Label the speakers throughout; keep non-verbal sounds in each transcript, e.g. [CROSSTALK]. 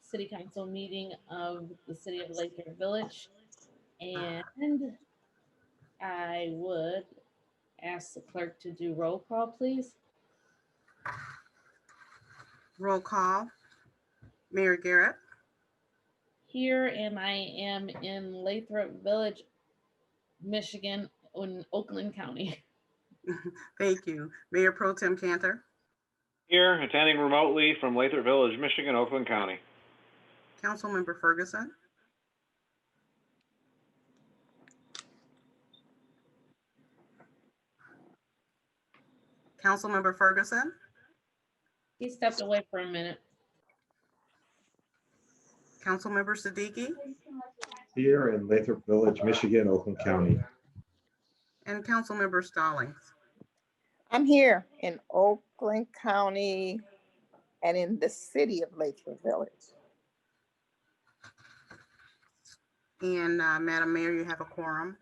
Speaker 1: city council meeting of the city of Laker Village. And I would ask the clerk to do roll call, please.
Speaker 2: Roll call. Mayor Garrett,
Speaker 1: Here and I am in Lathrop Village, Michigan, in Oakland County. [LAUGHS]
Speaker 2: thank you. Mayor Pro Tem Cantor,
Speaker 3: Here, attending remotely from Lathrop Village, Michigan, Oakland County.
Speaker 2: Councilmember Ferguson, Councilmember Ferguson,
Speaker 1: He stepped away for a minute.
Speaker 2: Councilmember Siddiqui,
Speaker 4: Here in Lathrop Village, Michigan, Oakland County.
Speaker 2: and Councilmember Stallings.
Speaker 5: I'm here in Oakland County and in the city of Latham Village.
Speaker 2: And uh, Madam Mayor, you have a quorum.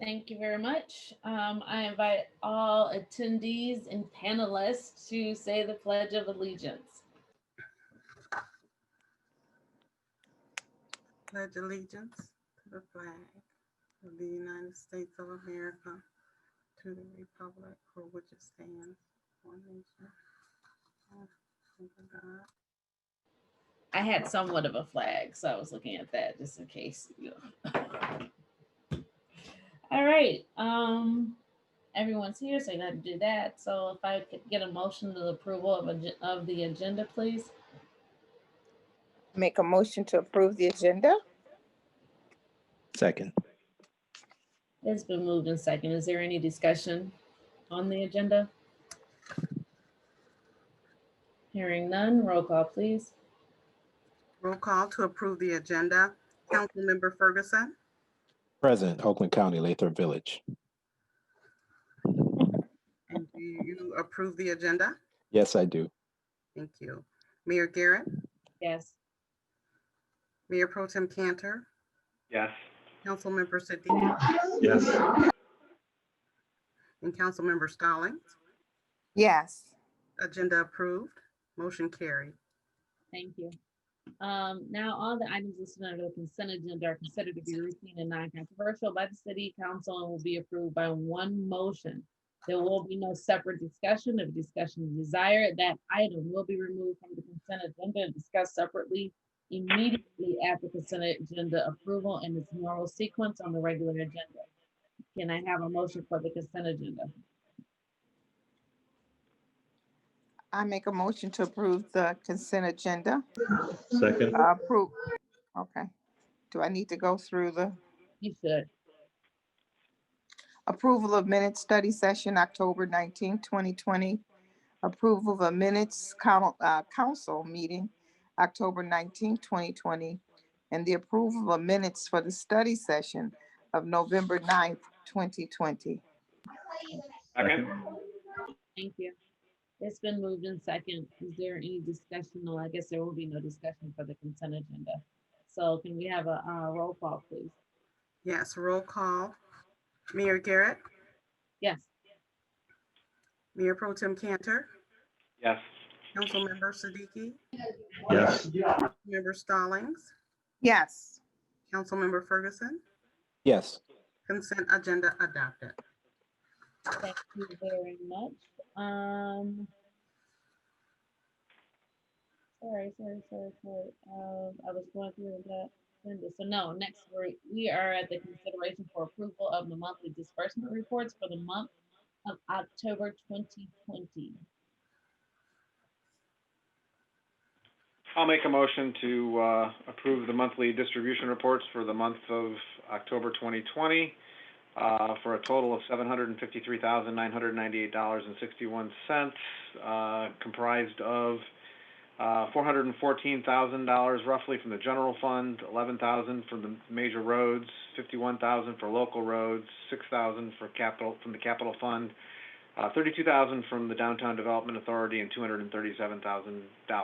Speaker 1: Thank you very much. Um, I invite all attendees and panelists to say the Pledge of Allegiance.
Speaker 2: Pledge allegiance to the flag of the United States of America, to the republic for which it stands, one nation. under God.
Speaker 1: I had somewhat of a flag, so I was looking at that just in case. you know. [LAUGHS] All right, um, everyone's here, so you got to do that. So if I could get a motion to the approval of, agen- of the agenda, please.
Speaker 5: Make a motion to approve the agenda?
Speaker 6: Second.
Speaker 1: It's been moved in second. Is there any discussion on the agenda? Hearing none, roll call, please.
Speaker 2: Roll call to approve the agenda. Councilmember Ferguson,
Speaker 6: President, Oakland County, Lathrop Village.
Speaker 2: and do you approve the agenda?
Speaker 6: Yes, I do.
Speaker 2: Thank you. Mayor Garrett,
Speaker 1: Yes.
Speaker 2: Mayor Pro Tem Cantor,
Speaker 3: Yes.
Speaker 2: Councilmember Siddiqui,
Speaker 4: Yes.
Speaker 2: and Councilmember Stallings.
Speaker 5: Yes.
Speaker 2: Agenda approved. Motion carried.
Speaker 1: Thank you. Um, now all the items listed under the consent agenda are considered to be routine and non-controversial by the city council and will be approved by one motion. There will be no separate discussion. If discussion is desired, that item will be removed from the consent agenda and discussed separately immediately after consent agenda approval in its normal sequence on the regular agenda. Can I have a motion for the consent agenda?
Speaker 5: I make a motion to approve the consent agenda.
Speaker 4: Second.
Speaker 5: Approve. Okay. Do I need to go through the
Speaker 1: You should.
Speaker 5: approval of minutes study session October 19, 2020? Approval of a minutes coun- uh, council meeting October 19, 2020? And the approval of minutes for the study session of November 9, 2020?
Speaker 3: Second?
Speaker 1: Thank you. It's been moved in second. Is there any discussion? Well, I guess there will be no discussion for the consent agenda. So can we have a uh, roll call, please?
Speaker 2: Yes, roll call. Mayor Garrett,
Speaker 1: Yes,
Speaker 2: Mayor Pro Tem Cantor,
Speaker 3: Yes.
Speaker 2: Councilmember Siddiqui,
Speaker 4: Yes.
Speaker 2: Member Stallings,
Speaker 5: Yes.
Speaker 2: Councilmember Ferguson,
Speaker 6: Yes.
Speaker 2: consent agenda adopted.
Speaker 1: thank you very much. Um. Sorry, sorry, sorry, sorry. Um, I was going through that. agenda. So no, next, we we are at the consideration for approval of the monthly disbursement reports for the month of October twenty twenty.
Speaker 3: I'll make a motion to uh, approve the monthly distribution reports for the month of October 2020 uh, for a total of $753,998.61, uh, comprised of uh, $414,000 roughly from the general fund, $11,000 from the major roads, $51,000 for local roads, $6,000 for capital, from the capital fund, uh, $32,000 from the Downtown Development Authority, and $237,000